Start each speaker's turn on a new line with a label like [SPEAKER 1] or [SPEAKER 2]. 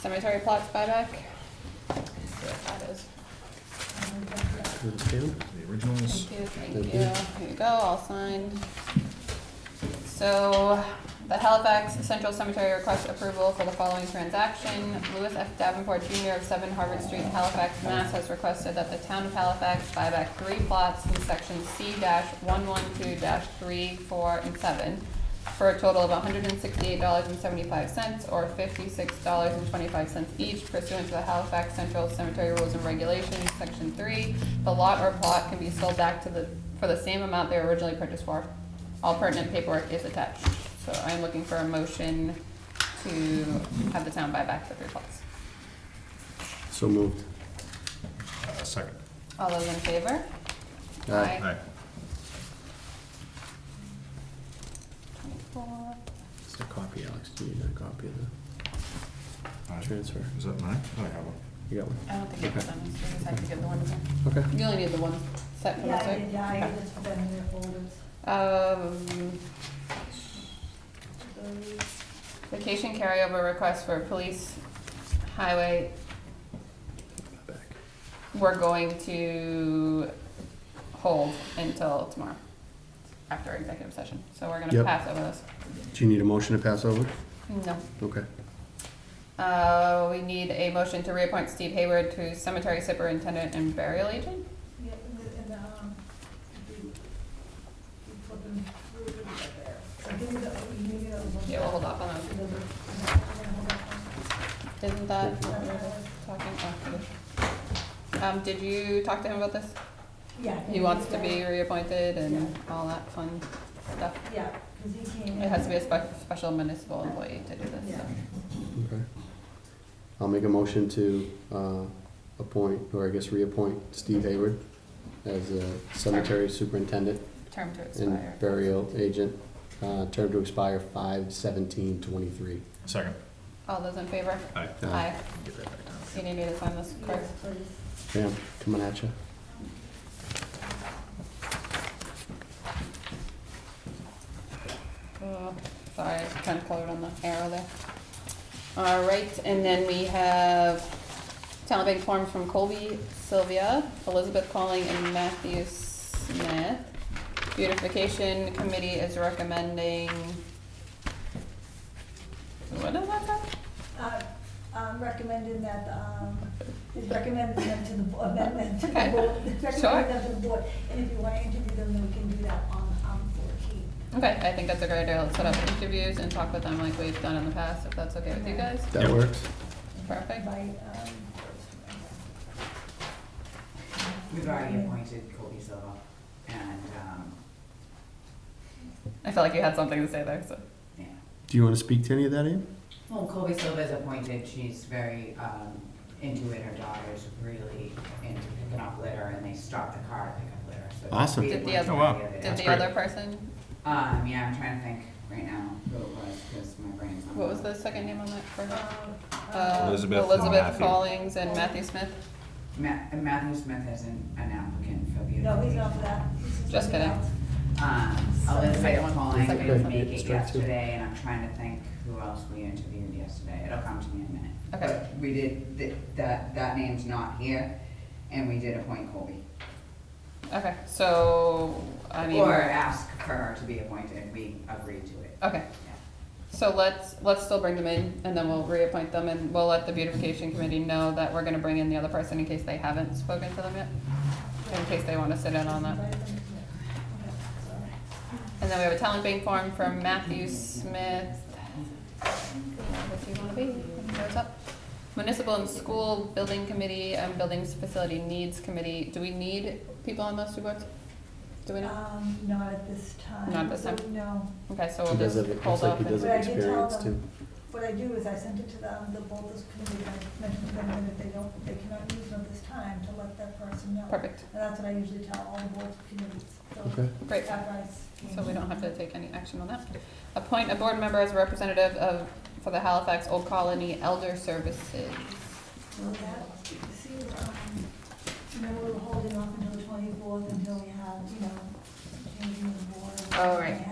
[SPEAKER 1] cemetery plots buyback. Let's see what that is.
[SPEAKER 2] The originals.
[SPEAKER 1] Thank you, thank you. Here you go, all signed. So the Halifax Central Cemetery requests approval for the following transaction. Louis F. Davenport Jr. of Seven Harvard Street, Halifax, Mass. has requested that the town of Halifax buy back three plots in section C one one two three, four, and seven for a total of hundred and sixty-eight dollars and seventy-five cents or fifty-six dollars and twenty-five cents each pursuant to the Halifax Central Cemetery Rules and Regulations, section three. The lot or plot can be sold back to the, for the same amount they were originally purchased for. All pertinent paperwork is attached. So I'm looking for a motion to have the town buy back the three plots.
[SPEAKER 3] So moved.
[SPEAKER 2] Uh, Second.
[SPEAKER 1] All those in favor?
[SPEAKER 3] Aye.
[SPEAKER 2] Aye.
[SPEAKER 1] Twenty-four.
[SPEAKER 3] Is there a copy, Alex? Do you need a copy of the
[SPEAKER 2] Aye.
[SPEAKER 3] transfer?
[SPEAKER 2] Is that mine? Oh, I have one.
[SPEAKER 3] You got one?
[SPEAKER 1] I don't think it was
[SPEAKER 3] Okay.
[SPEAKER 1] done, so we just have to give the one to them.
[SPEAKER 3] Okay.
[SPEAKER 1] You only need the one set from
[SPEAKER 4] Yeah,
[SPEAKER 1] the
[SPEAKER 4] I
[SPEAKER 1] start.
[SPEAKER 4] did, yeah, I just put them in their folders.
[SPEAKER 1] Um,
[SPEAKER 4] Those-
[SPEAKER 1] vacation carryover request for police, highway,
[SPEAKER 3] Back.
[SPEAKER 1] we're going to hold until tomorrow, after executive session, so we're gonna
[SPEAKER 3] Yep.
[SPEAKER 1] pass over this.
[SPEAKER 3] Do you need a motion to pass over?
[SPEAKER 1] No.
[SPEAKER 3] Okay.
[SPEAKER 1] Uh, we need a motion to reappoint Steve Hayward to cemetery superintendent and burial agent?
[SPEAKER 4] Yeah, and the- and the, um, you, you put them through the, there. So give me the, you need the other one.
[SPEAKER 1] Yeah, we'll hold off on that.
[SPEAKER 4] The other- the other one, hold
[SPEAKER 1] Isn't that what we
[SPEAKER 4] on.
[SPEAKER 1] were
[SPEAKER 4] Uh,
[SPEAKER 1] talking about? Um, did you talk to him about this?
[SPEAKER 4] Yeah.
[SPEAKER 1] He wants to be reappointed and all that fun stuff.
[SPEAKER 4] Yeah, because he came.
[SPEAKER 1] It has to be a spe- special municipal employee to do this,
[SPEAKER 4] Yeah.
[SPEAKER 1] so.
[SPEAKER 3] Okay. I'll make a motion to uh, appoint, or I guess reappoint Steve Hayward as a cemetery superintendent
[SPEAKER 1] Term to
[SPEAKER 3] and
[SPEAKER 1] expire.
[SPEAKER 3] burial agent, uh, term to expire five seventeen twenty-three.
[SPEAKER 2] Second.
[SPEAKER 1] All those in favor?
[SPEAKER 2] Aye.
[SPEAKER 1] Aye.
[SPEAKER 2] Get that back down.
[SPEAKER 1] You need me to sign this, Chris?
[SPEAKER 4] Yes, please.
[SPEAKER 3] Pam, coming at you.
[SPEAKER 1] Oh, sorry, I was kind of colored on the arrow there. All right, and then we have talent bank forms from Colby, Sylvia, Elizabeth Calling, and Matthew Smith. Beautification committee is recommending. What does that say?
[SPEAKER 4] Uh, um, recommending that, um, is recommending them to the, bo- amendment to the
[SPEAKER 1] Okay.
[SPEAKER 4] board.
[SPEAKER 1] Sure.
[SPEAKER 4] Recommending them to the board, and if you want to interview them, then we can do that on, um, fourteen.
[SPEAKER 1] Okay, I think that's a great idea. Let's set up interviews and talk with them like we've done in the past, if that's okay with you guys.
[SPEAKER 3] That
[SPEAKER 2] Yeah.
[SPEAKER 3] works?
[SPEAKER 1] Perfect.
[SPEAKER 4] By, um.
[SPEAKER 5] We've already appointed Colby Silva and, um,
[SPEAKER 1] I felt like you had something to say there, so.
[SPEAKER 5] yeah.
[SPEAKER 3] Do you want to speak to any of that, Ian?
[SPEAKER 5] Well, Colby Silva is appointed, she's very, um, into it, her daughter's really into picking up litter and they stop the car to pick up litter, so.
[SPEAKER 3] Awesome.
[SPEAKER 5] we
[SPEAKER 1] Did the
[SPEAKER 5] appointed
[SPEAKER 1] other-
[SPEAKER 2] Oh, wow.
[SPEAKER 5] her the other
[SPEAKER 1] Did
[SPEAKER 5] day.
[SPEAKER 1] the other person,
[SPEAKER 5] Um, yeah, I'm trying to think right now who it was, cause my brain's not.
[SPEAKER 1] what was the second name on that for her?
[SPEAKER 4] Um,
[SPEAKER 1] Uh,
[SPEAKER 2] Elizabeth and
[SPEAKER 1] Elizabeth
[SPEAKER 2] Matthew.
[SPEAKER 1] Collings and Matthew Smith.
[SPEAKER 5] Ma- Matthew Smith is an, an applicant for the.
[SPEAKER 4] No, he's
[SPEAKER 5] appointment.
[SPEAKER 4] not for that. He's for
[SPEAKER 1] Just
[SPEAKER 4] something
[SPEAKER 1] kidding.
[SPEAKER 4] else.
[SPEAKER 5] Um,
[SPEAKER 1] Second
[SPEAKER 5] Elizabeth
[SPEAKER 1] one.
[SPEAKER 5] Pauling
[SPEAKER 1] Second
[SPEAKER 5] didn't
[SPEAKER 3] one.
[SPEAKER 5] make it
[SPEAKER 3] Strike two.
[SPEAKER 5] yesterday, and I'm trying to think who else we interviewed yesterday, it'll come to me in a minute.
[SPEAKER 1] Okay.
[SPEAKER 5] But We did, th- that, that name's not here, and we did appoint Colby.
[SPEAKER 1] Okay, so, I mean,
[SPEAKER 5] Or ask for her to be appointed, we agreed to it.
[SPEAKER 1] okay, so let's, let's still bring them in, and then we'll reappoint them, and we'll let the beautification committee know that we're gonna bring in the other person in case they haven't spoken to them yet, in case they wanna sit in on that.
[SPEAKER 4] Invite them to it. Okay, sorry.
[SPEAKER 1] And then we have a talent bank form from Matthew Smith. If you wanna be, what's up? Municipal and School Building Committee and Buildings Facility Needs Committee. Do we need people on those two boards? Do we not?
[SPEAKER 4] Um, not at this time.
[SPEAKER 1] Not at this time?
[SPEAKER 4] No.
[SPEAKER 1] Okay, so we'll
[SPEAKER 3] He does
[SPEAKER 1] Oh, just
[SPEAKER 3] have, it looks
[SPEAKER 1] hold
[SPEAKER 3] like
[SPEAKER 1] off.
[SPEAKER 3] he does
[SPEAKER 1] and-
[SPEAKER 4] it.
[SPEAKER 3] have
[SPEAKER 4] But I did tell
[SPEAKER 3] experience too.
[SPEAKER 4] them- What I do is I send it to them, the Boulders Committee, I mentioned to them that if they don't, they cannot use them at this time, to let that person know.
[SPEAKER 1] Perfect,
[SPEAKER 4] And that's what I usually tell all the board committees. So
[SPEAKER 3] Okay.
[SPEAKER 1] great.
[SPEAKER 4] After I s-
[SPEAKER 1] So we don't have to take any action on that. Appoint a board member as a representative of, for the Halifax Old Colony Elder Services.
[SPEAKER 4] Well, that, you see, um, remember we were holding off until the twenty-fourth until we had, you know, changing the board.
[SPEAKER 1] Oh, right.